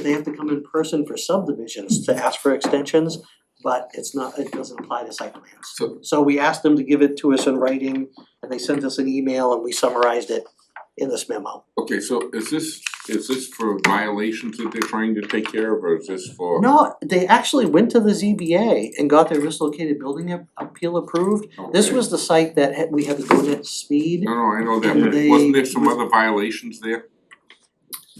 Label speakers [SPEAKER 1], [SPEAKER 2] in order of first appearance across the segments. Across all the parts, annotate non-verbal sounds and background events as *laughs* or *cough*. [SPEAKER 1] they have to come in person for subdivisions to ask for extensions, but it's not, it doesn't apply to site plans.
[SPEAKER 2] So
[SPEAKER 1] So we asked them to give it to us in writing, and they sent us an email and we summarized it in this memo.
[SPEAKER 2] Okay, so is this, is this for violations that they're trying to take care of, or is this for?
[SPEAKER 1] No, they actually went to the ZBA and got their dislocated building ap- appeal approved. This
[SPEAKER 2] Okay.
[SPEAKER 1] was the site that had- we had to go at speed.
[SPEAKER 2] No, no, I know that, but
[SPEAKER 1] They-
[SPEAKER 2] wasn't there some other violations there?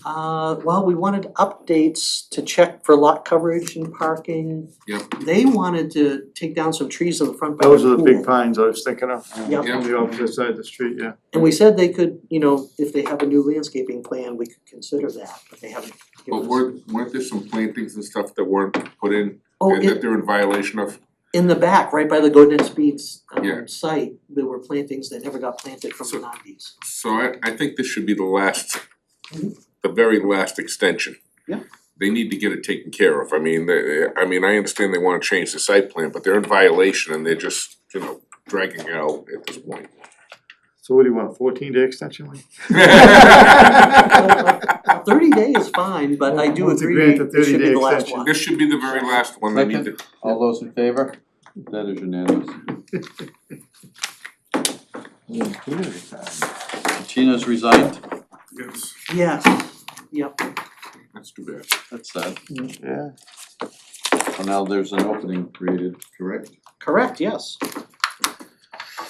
[SPEAKER 1] Uh, well, we wanted updates to check for lot coverage and parking.
[SPEAKER 2] Yep.
[SPEAKER 1] They wanted to take down some trees in the front by the pool.
[SPEAKER 3] Those are the big pines I was thinking of.
[SPEAKER 1] Yep.
[SPEAKER 3] On the opposite side of the street, yeah.
[SPEAKER 1] And we said they could, you know, if they have a new landscaping plan, we could consider that, but they haven't
[SPEAKER 2] But
[SPEAKER 1] given us.
[SPEAKER 2] weren't weren't there some plantings and stuff that weren't put in,
[SPEAKER 1] Oh,
[SPEAKER 2] and that
[SPEAKER 1] in,
[SPEAKER 2] they're in violation of?
[SPEAKER 1] in the back, right by the Golden Speeds
[SPEAKER 2] Yeah.
[SPEAKER 1] um site, there were plantings that never got planted from the
[SPEAKER 2] So-
[SPEAKER 1] nineties.
[SPEAKER 2] So I I think this should be the last,
[SPEAKER 1] Mhm.
[SPEAKER 2] the very last extension.
[SPEAKER 1] Yeah.
[SPEAKER 2] They need to get it taken care of, I mean, they, I mean, I understand they wanna change the site plan, but they're in violation and they're just, you know, dragging it out at
[SPEAKER 1] *laughs*
[SPEAKER 2] this point. *laughs*
[SPEAKER 3] So what do you want, fourteen day extension?
[SPEAKER 2] *laughs*
[SPEAKER 3] Lee?
[SPEAKER 1] Thirty day is fine, but I do
[SPEAKER 3] Well, it's
[SPEAKER 1] agree,
[SPEAKER 3] agreed to
[SPEAKER 1] it should be
[SPEAKER 3] 30-day
[SPEAKER 1] the last
[SPEAKER 3] extension.
[SPEAKER 1] one.
[SPEAKER 2] This should be the very last one, they need to
[SPEAKER 4] All those in favor? That is unanimous. Tina's resigned,
[SPEAKER 2] Yes,
[SPEAKER 1] Yeah, yep,
[SPEAKER 2] that's too bad.
[SPEAKER 4] that's sad.
[SPEAKER 3] Yeah.
[SPEAKER 4] So now there's an opening created, correct?
[SPEAKER 1] correct, yes.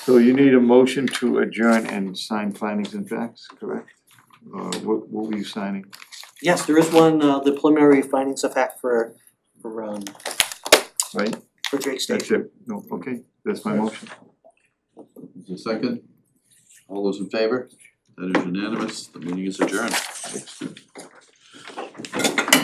[SPEAKER 3] So you need a motion to adjourn and sign findings and facts, correct? Uh, what, what were you signing?
[SPEAKER 1] Yes, there is one, uh, the preliminary findings of fact for, for, um,
[SPEAKER 3] Right.
[SPEAKER 1] for Drake
[SPEAKER 3] That's
[SPEAKER 1] Station.
[SPEAKER 3] it, no, okay, that's my motion.
[SPEAKER 4] Is there a second? All those in favor? That is unanimous, the meeting is adjourned.